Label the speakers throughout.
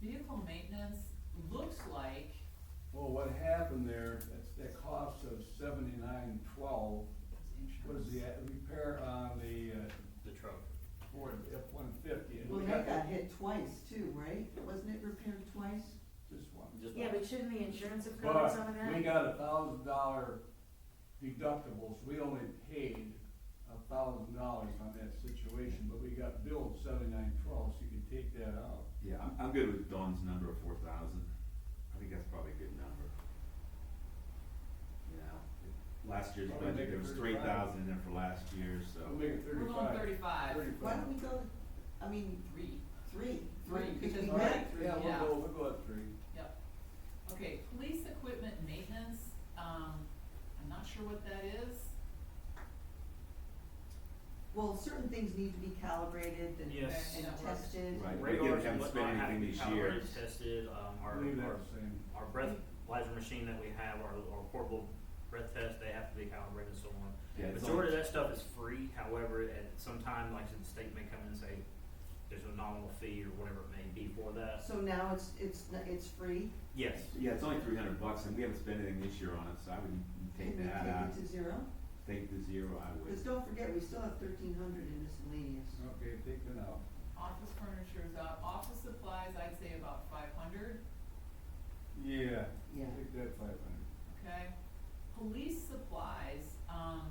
Speaker 1: vehicle maintenance looks like,
Speaker 2: Well, what happened there, that's, that cost of seventy-nine twelve was the uh, repair on the uh,
Speaker 3: the truck.
Speaker 2: Ford F one fifty.
Speaker 4: Well, that got hit twice too, right? Wasn't it repaired twice?
Speaker 2: Just one.
Speaker 3: Just
Speaker 5: Yeah,
Speaker 3: like-
Speaker 5: but shouldn't the insurance have covered some of
Speaker 2: But we
Speaker 5: that?
Speaker 2: got a thousand dollar deductibles, we only paid a thousand dollars on that situation, but we got billed seventy-nine twelve, so you could take that out.
Speaker 6: Yeah, I'm, I'm good with Dawn's number of four thousand. I think that's probably a good number. You know, it- last year's
Speaker 2: Probably make it
Speaker 6: budget, there was three
Speaker 2: 35.
Speaker 6: thousand in there for last year, so.
Speaker 2: We'll make it
Speaker 1: we're going
Speaker 2: thirty-five.
Speaker 1: thirty-five,
Speaker 4: Why don't we go, I mean,
Speaker 1: three,
Speaker 4: three,
Speaker 1: Three,
Speaker 4: three, because we
Speaker 1: because-
Speaker 4: had
Speaker 2: Alright,
Speaker 4: three.
Speaker 2: yeah, we'll
Speaker 1: yeah.
Speaker 2: go, we'll go at three.
Speaker 1: yep. Okay, police equipment maintenance, um, I'm not sure what that is.
Speaker 4: Well, certain things need to be calibrated and,
Speaker 3: Yes.
Speaker 4: and
Speaker 1: That works.
Speaker 4: tested.
Speaker 6: Right. we
Speaker 3: Radars
Speaker 6: haven't
Speaker 3: and
Speaker 6: spent
Speaker 3: whatnot have to
Speaker 6: anything
Speaker 3: be
Speaker 6: this year.
Speaker 3: calibrated, tested, um, our,
Speaker 2: Leave that
Speaker 3: our,
Speaker 2: the same.
Speaker 3: our breathalyzer machine that we have, our, our portable breath test, they have to be calibrated and so on.
Speaker 6: Yeah, it's
Speaker 3: Majority of
Speaker 6: only-
Speaker 3: that stuff is free, however, at some time, like I said, the state may come and say, there's a nominal fee or whatever it may be for that.
Speaker 4: So now it's, it's, n- it's free?
Speaker 3: Yes,
Speaker 6: Yeah, it's only three hundred bucks and we haven't spent anything this year on it, so I would take
Speaker 4: Can we
Speaker 6: that out,
Speaker 4: Take it to zero?
Speaker 6: take the zero, I
Speaker 4: Because
Speaker 6: would.
Speaker 4: don't forget, we still have thirteen hundred in miscellaneous.
Speaker 2: Okay, take that out.
Speaker 1: Office furniture is up, office supplies, I'd say about five hundred,
Speaker 2: Yeah.
Speaker 4: Yeah.
Speaker 2: Take that five hundred.
Speaker 1: okay? Police supplies, um,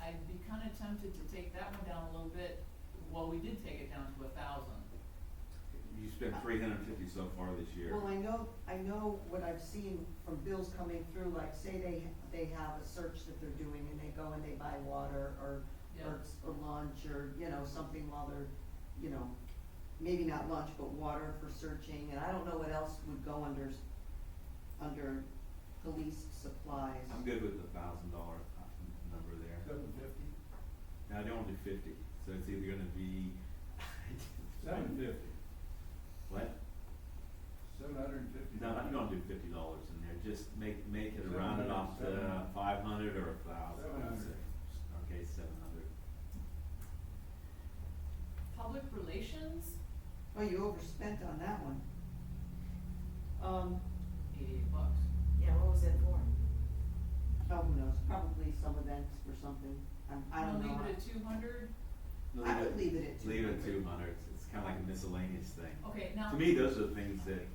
Speaker 1: I'd be kinda tempted to take that one down a little bit, well, we did take it down to a thousand.
Speaker 6: You spent three hundred and fifty so far this year.
Speaker 4: Well, I know, I know what I've seen from bills coming through, like say they, they have a search that they're doing and they go and they buy water or,
Speaker 1: Yeah.
Speaker 4: or, or lunch or, you know, something while they're, you know, maybe not lunch, but water for searching, and I don't know what else would go under, s- under police supplies.
Speaker 6: I'm good with the thousand dollar number there.
Speaker 2: Seven fifty?
Speaker 6: Now, they only do fifty, so it's either gonna be.
Speaker 2: Seven fifty.
Speaker 6: What?
Speaker 2: Seven hundred and fifty.
Speaker 6: No, I'm gonna do fifty dollars in there, just make, make it
Speaker 2: Seven
Speaker 6: round
Speaker 2: hundred,
Speaker 6: it off
Speaker 2: seven
Speaker 6: to
Speaker 2: hundred.
Speaker 6: five hundred or a thousand.
Speaker 2: Seven hundred.
Speaker 6: Okay, seven hundred.
Speaker 1: Public relations,
Speaker 4: Well, Oh, you overspent on that one. Um,
Speaker 1: eighty-eight bucks.
Speaker 5: Yeah, what was it for?
Speaker 4: oh, who knows, probably some events or something, I'm, I don't know.
Speaker 1: We'll leave it at two hundred,
Speaker 4: I would leave it at two. Oh,
Speaker 6: Leave it at two hundred, it's kinda like a miscellaneous thing.
Speaker 1: okay, now.
Speaker 6: To me, those are the things that,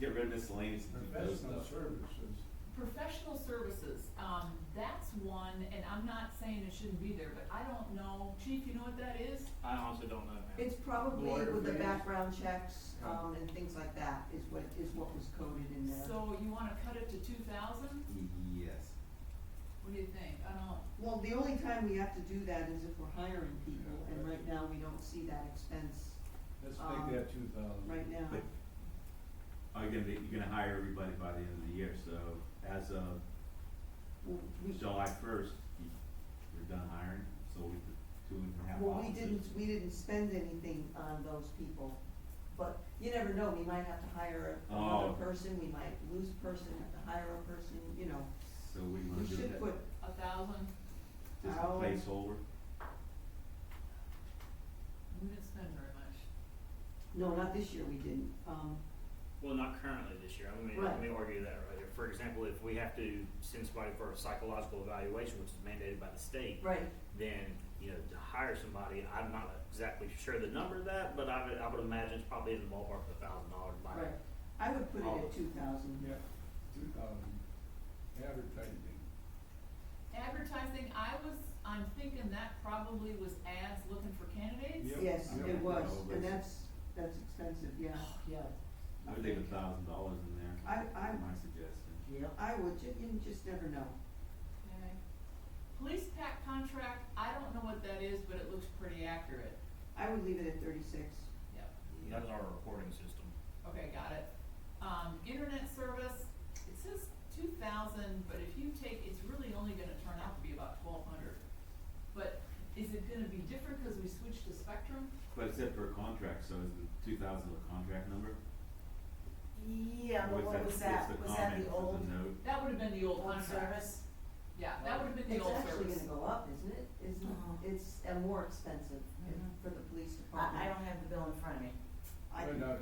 Speaker 6: get rid of miscellaneous, and do those
Speaker 2: Professional
Speaker 6: stuff.
Speaker 2: services.
Speaker 1: Professional services, um, that's one, and I'm not saying it shouldn't be there, but I don't know, chief, you know what that is?
Speaker 3: I honestly don't know, man.
Speaker 4: It's probably
Speaker 2: Lawyer
Speaker 4: with the
Speaker 2: fees.
Speaker 4: background checks,
Speaker 2: Yeah.
Speaker 4: um, and things like that is what, is what was coded in there.
Speaker 1: So you wanna cut it to two thousand?
Speaker 6: Yes.
Speaker 1: What do you think? I don't,
Speaker 4: Well, the only time we have to do that is if we're hiring people, and right now we don't see that expense
Speaker 2: Let's
Speaker 4: Um,
Speaker 2: make that two thousand.
Speaker 4: right now.
Speaker 6: But Are you gonna, be- Oh, you're gonna hire everybody by the end of the year, so as of
Speaker 4: Well, We,
Speaker 6: July first, you- you're done hiring, so we could, two and a half
Speaker 4: well, we
Speaker 6: officers.
Speaker 4: didn't, we didn't spend anything on those people, but you never know, we might have to hire another
Speaker 6: Oh.
Speaker 4: person, we might lose a person, have to hire a person, you know.
Speaker 6: So we wanna
Speaker 4: We
Speaker 6: do
Speaker 4: should
Speaker 6: that,
Speaker 4: put,
Speaker 1: a thousand,
Speaker 6: just a
Speaker 4: out-
Speaker 6: placeholder,
Speaker 1: we didn't spend very much.
Speaker 4: no, not this year we didn't, um,
Speaker 3: Well, not currently this year, I mean,
Speaker 4: Right.
Speaker 3: let me argue that right there. For example, if we have to send somebody for a psychological evaluation, which is mandated by the state,
Speaker 4: right,
Speaker 3: then, you know, to hire somebody, I'm not exactly sure the number of that, but I would, I would imagine it's probably in the ballpark of a thousand dollars by
Speaker 4: right. I would put it
Speaker 3: All of
Speaker 4: at
Speaker 3: it.
Speaker 4: two thousand.
Speaker 2: Yeah, two thousand. Advertising.
Speaker 1: Advertising, I was, I'm thinking that probably was ads looking for candidates?
Speaker 2: Yep.
Speaker 4: Yes,
Speaker 2: Yep.
Speaker 4: it was,
Speaker 6: Yeah.
Speaker 4: and that's, that's expensive, yeah.
Speaker 1: Yeah.
Speaker 6: I would leave a thousand dollars in there.
Speaker 4: I- I-
Speaker 6: My suggestion.
Speaker 4: Yep. I would, ju- you just never know.
Speaker 1: Okay. Police pack contract, I don't know what that is, but it looks pretty accurate.
Speaker 4: I would leave it at thirty-six.
Speaker 1: Yep.
Speaker 3: That is our reporting system.
Speaker 1: Okay, got it. Um, internet service, it says two thousand, but if you take, it's really only gonna turn out to be about twelve hundred. But is it gonna be different because we switched to Spectrum?
Speaker 6: But it's set for a contract, so is the two thousand a contract number?
Speaker 5: Yeah,
Speaker 6: Or
Speaker 5: but what was that,
Speaker 6: what's the
Speaker 5: was that
Speaker 6: comment,
Speaker 5: the
Speaker 6: what's
Speaker 5: old,
Speaker 6: the note?
Speaker 1: That would've been the old
Speaker 5: old
Speaker 1: contract.
Speaker 5: service?
Speaker 1: Yeah, that would've been the
Speaker 4: It's
Speaker 1: old
Speaker 4: actually
Speaker 1: service.
Speaker 4: gonna go up, isn't it? Isn't,
Speaker 5: Uh-huh.
Speaker 4: it's, and more expensive
Speaker 1: Mhm.
Speaker 4: for the police
Speaker 5: I, I
Speaker 4: department.
Speaker 5: don't have the bill in front of me.
Speaker 4: I
Speaker 2: Right
Speaker 4: can-
Speaker 2: now,